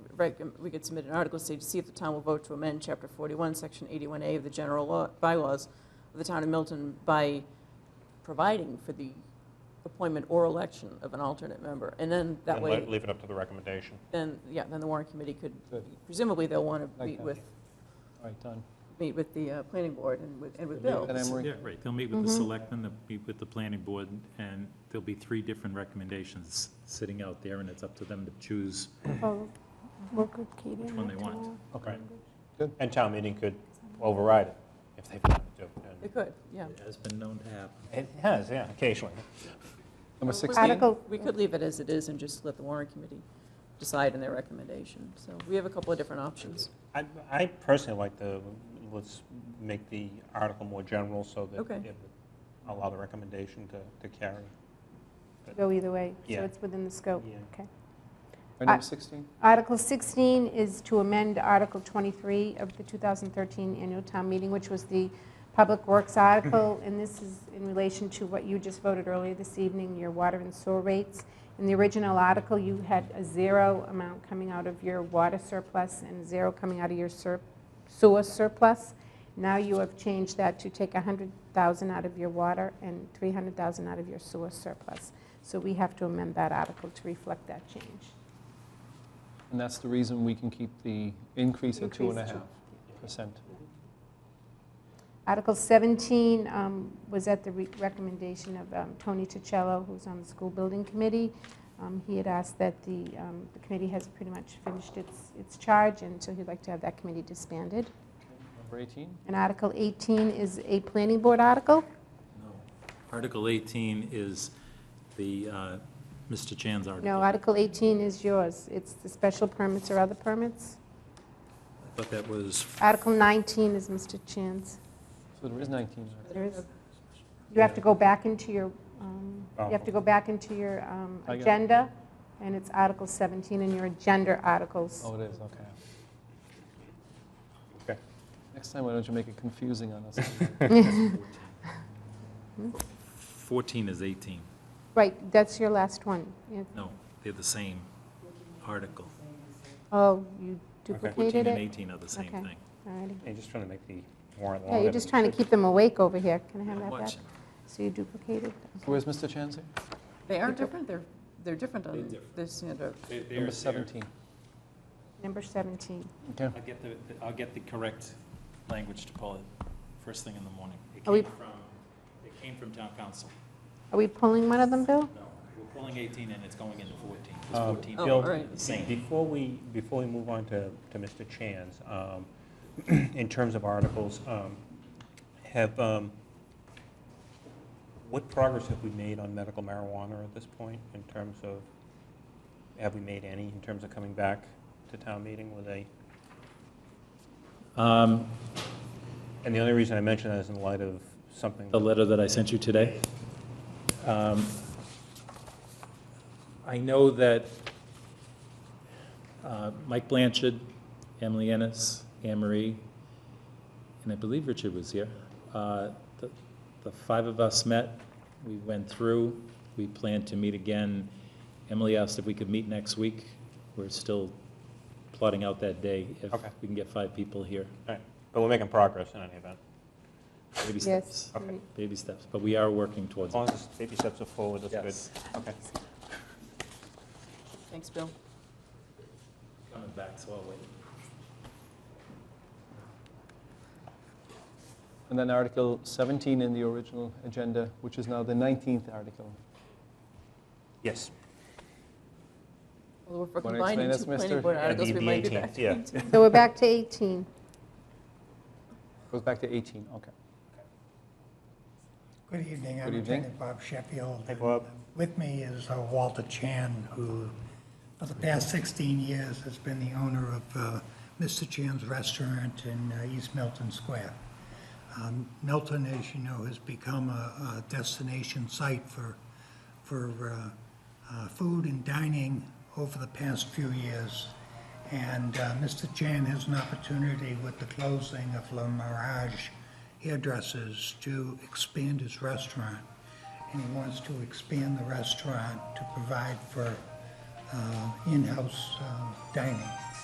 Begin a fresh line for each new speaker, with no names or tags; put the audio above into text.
reg- um, we could submit an article, say, to see if the town will vote to amend Chapter 41, Section 81A of the general law, bylaws of the town of Milton by providing for the appointment or election of an alternate member. And then that
And le-
way,
leave it up to the recommendation.
then, yeah, then the warrant committee could,
Good.
presumably they'll want to
Like
meet
that.
with,
All right, done.
meet with the uh, planning board and with, and with
Leave it
Bill.
at Emery.
Yeah, right, they'll meet with the
Mm-hmm.
selectmen, they'll meet with the planning board, and there'll be three different recommendations sitting out there, and it's up to them to choose
Oh, work with Katie.
which one they want.
Okay.
Good.
And town meeting could override it if they wanted to.
They
and-
could, yeah.
It has been known to happen.
It has, yeah, occasionally.
Number
We-
16,
Article-
We could leave it as it is and just let the warrant committee decide in their recommendation. So we have a couple of different options.
I- I personally like the, let's make the article more general so that
Okay.
it would allow the recommendation to to carry.
Go either way,
Yeah.
so it's within the scope.
Yeah.
Okay.
Right, number 16?
Article 16 is to amend Article 23 of the 2013 annual town meeting, which was the Public Works article, and this is in relation to what you just voted earlier this evening, your water and sewer rates. In the original article, you had a zero amount coming out of your water surplus and zero coming out of your sur- sewer surplus. Now you have changed that to take 100,000 out of your water and 300,000 out of your sewer surplus. So we have to amend that article to reflect that change.
And that's the reason we can keep the increase at two and a
Increase to-
half percent.
Article 17 um, was at the re- recommendation of um, Tony Ticello, who's on the school building committee. Um, He had asked that the, um, the committee has pretty much finished its, its charge, and so he'd like to have that committee disbanded.
Number 18?
And Article 18 is a planning board article.
No. Article 18 is the, uh, Mr. Chan's article.
No, Article 18 is yours. It's the special permits or other permits.
I thought that was,
Article 19 is Mr. Chan's.
So there is 19. there.
There is, you have to go back into your, um, you have to go back into your um,
I got it.
agenda, and it's Article 17 in your agenda articles.
Oh, it is, okay.
Okay.
Next time, why don't you make it confusing on us?
14 is 18.
Right, that's your last one. You-
No, they're the same article.
Oh, you duplicated
14 and
it?
18 are the same
Okay.
thing.
Alrighty.
Yeah, just trying to make the warrant longer.
Yeah, you're just trying to keep them awake over here. Can I have that back?
Watch.
So you duplicated.
Where's Mr. Chancer?
They are different, they're, they're different
They're
on
different.
this, you know,
Number 17.
Number 17.
Okay.
I'll get the, I'll get the correct language to pull it first thing in the morning. It
Are we-
came from, it came from town council.
Are we pulling one of them, Bill?
No, we're pulling 18 and it's going into 14. It's
Uh,
14.
Oh,
Bill,
all right.
be-
Same.
Before we, before we move on to, to Mr. Chan's, um, in terms of articles, um, have, um, what progress have we made on medical marijuana at this point in terms of, have we made any in terms of coming back to town meeting with a,
Um,
and the only reason I mention that is in light of something.
the letter that I sent you today. Um, I know that uh, Mike Blanchard, Emily Ennis, Anne Marie, and I believe Richard was here. uh, The the five of us met, we went through, we planned to meet again. Emily asked if we could meet next week. We're still plotting out that day, if
Okay.
we can get five people here.
All right, But we're making progress in any event.
Baby
Yes.
steps, baby steps, but we are working
As
towards it.
long as the baby steps are forward, that's good.
Yes.
Okay.
thanks, Bill.
Coming back, so I'll wait.
And then Article 17 in the original agenda, which is now the 19th article.
Yes.
Although if we're
Wanna
combining
explain
two
this,
planning
mister?
board
Yeah,
articles,
the-
we
the
might be back.
18th, yeah.
So we're back to 18.
Goes back to 18, okay.
Good evening,
Good
I'm
evening.
Lieutenant Bob Sheffield.
Hi, Bob.
and With me is uh, Walter Chan, who for the past 16 years has been the owner of uh, Mr. Chan's Restaurant in uh, East Milton Square. Um, Milton, as you know, has become a a destination site for, for uh, uh, food and dining over the past few years. And uh, Mr. Chan has an opportunity with the closing of La Mirage Hairdressers to expand his restaurant. And he wants to expand the restaurant to provide for uh, in-house uh, dining.